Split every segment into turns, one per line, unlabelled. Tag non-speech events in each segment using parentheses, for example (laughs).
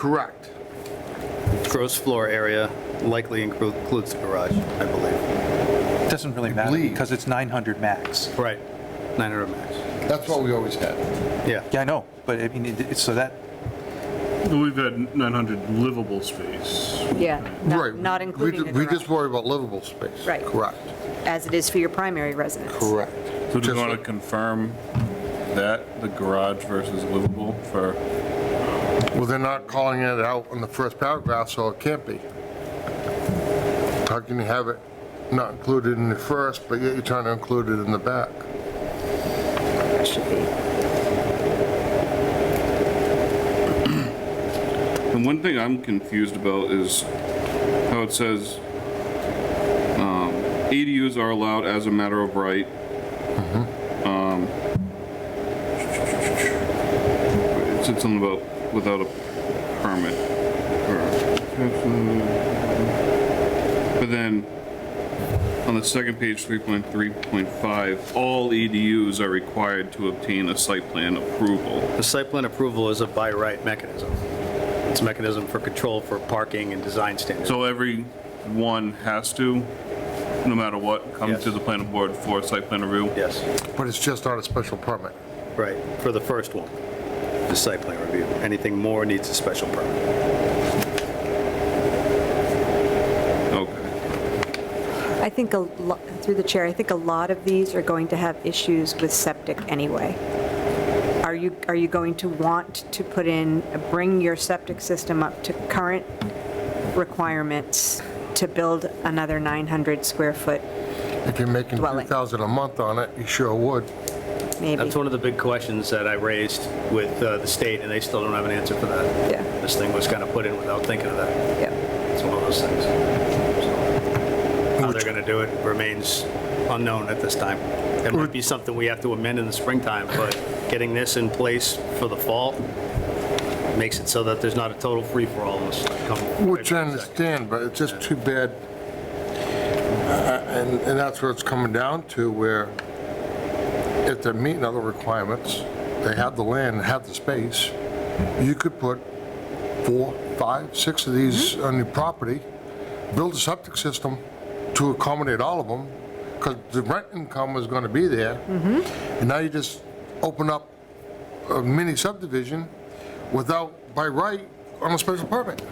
Correct.
Gross floor area likely inclu- includes the garage, I believe.
It Doesn't really matter
believe.
because it's 900 max.
Right. 900 max.
That's what we always had.
Yeah.
Yeah, I know, but I mean, it- it's so that,
We've had 900 livable space.
Yeah,
Right.
not- not
We
including
ju-
the
We just
garage,
worry about livable space.
Right.
Correct,
as it is for your primary residence.
correct.
So do
Just
you want
like-
to confirm that, the garage versus livable for,
Well, they're not calling it out in the first paragraph, so it can't be. How can you have it not included in the first, but yet you're trying to include it in the back?
And one thing I'm confused about is how it says, um, ADUs are allowed as a matter of right. Um, It said something about without a permit. or- But then, on the second page, three point three point five, all ADUs are required to obtain a site plan approval.
The site plan approval is a by right mechanism. It's a mechanism for control for parking and design standards.
So every one has to, no matter what, come
Yes.
to the planning board for site plan review?
Yes,
But it's just not a special permit.
right, for the first one, the site plan review. Anything more needs a special permit.
Okay.
I think, a lo- through the chair, I think a lot of these are going to have issues with septic anyway. Are you, are you going to want to put in, bring your septic system up to current requirements to build another 900 square foot,
If you're making
Dwelling.
2,000 a month on it, you sure would.
maybe?
That's one of the big questions that I raised with uh, the state, and they still don't have an answer for that.
Yeah.
This thing was kind of put in without thinking of that.
Yeah.
It's one of those things. So, How they're going to do it remains unknown at this time. It might be something we have to amend in the springtime, but getting this in place for the fall makes it so that there's not a total free-for-all this come
Which I
February 2nd.
understand, but it's just too bad. Uh, And, and that's what it's coming down to, where if they're meeting other requirements, they have the land, have the space, you could put four, five, six of these on your property, build a septic system to accommodate all of them, because the rent income is gonna be there. And now you just open up a mini subdivision without, by right, on a special permit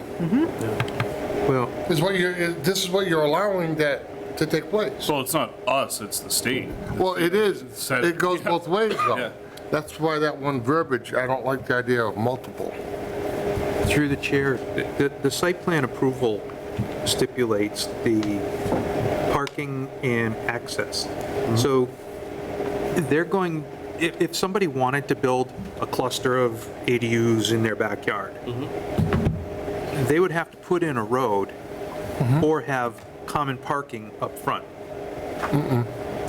well,
is what you're, is- this is what you're allowing that to take place.
well, it's not us, it's the state.
Well, it is,
Said-
it
(laughs)
goes both ways
Yeah.
though. That's why that one verbiage, I don't like the idea of multiple.
through the chair, the, the site plan approval stipulates the parking and access. So they're going, if, if somebody wanted to build a cluster of ADUs in their backyard, they would have to put in a road or have common parking up front.
You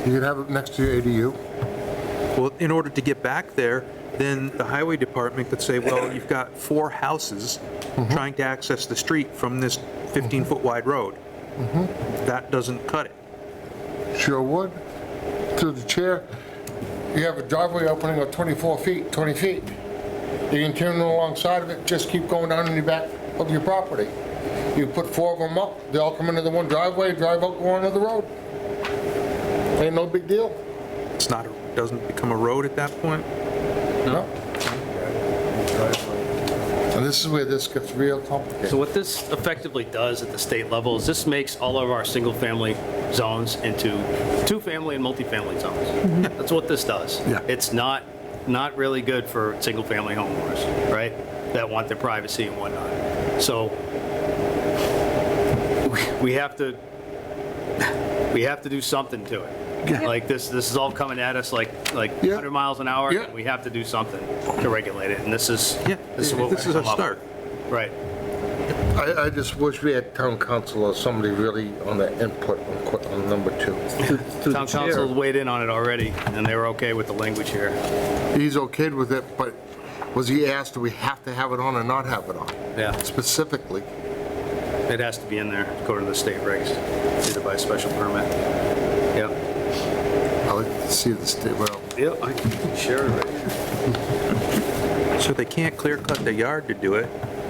could have it next to your ADU.
Well, in order to get back there, then the highway department could say, well, you've got four houses trying to access the street from this 15-foot wide road. That doesn't cut it.
Sure would. To the chair, you have a driveway opening of 24 feet, 20 feet. You can turn alongside of it, just keep going down in the back of your property. You put four of them up, they all come into the one driveway, drive out, go onto the road. Ain't no big deal.
It's not, doesn't become a road at that point.
No. And this is where this gets real
So
complicated.
what this effectively does at the state level is this makes all of our single-family zones into two-family and multifamily
Mm-hmm.
zones. That's what this does.
Yeah.
It's not, not really good for single-family homeowners, right? That want their privacy and whatnot. So we- we have to, we have to do something to it. Like this, this is all coming at us like, like
Yeah.
100 miles an hour.
Yeah.
and We have to do something to regulate it, and this is,
Yeah,
this is what
this
we've
is a
come up
start.
with. Right.
I, I just wish we had town council or somebody really on the input on que- on number two.
Town council weighed in on it already, and they were okay with the language here.
He's okay with it, but was he asked, do we have to have it on or not have it on?
Yeah.
Specifically.
It has to be in there, according to the state regs, either by special permit. Yep.
I like to see the state, well,
Yep, I share it right
So they can't clear cut the yard to do it.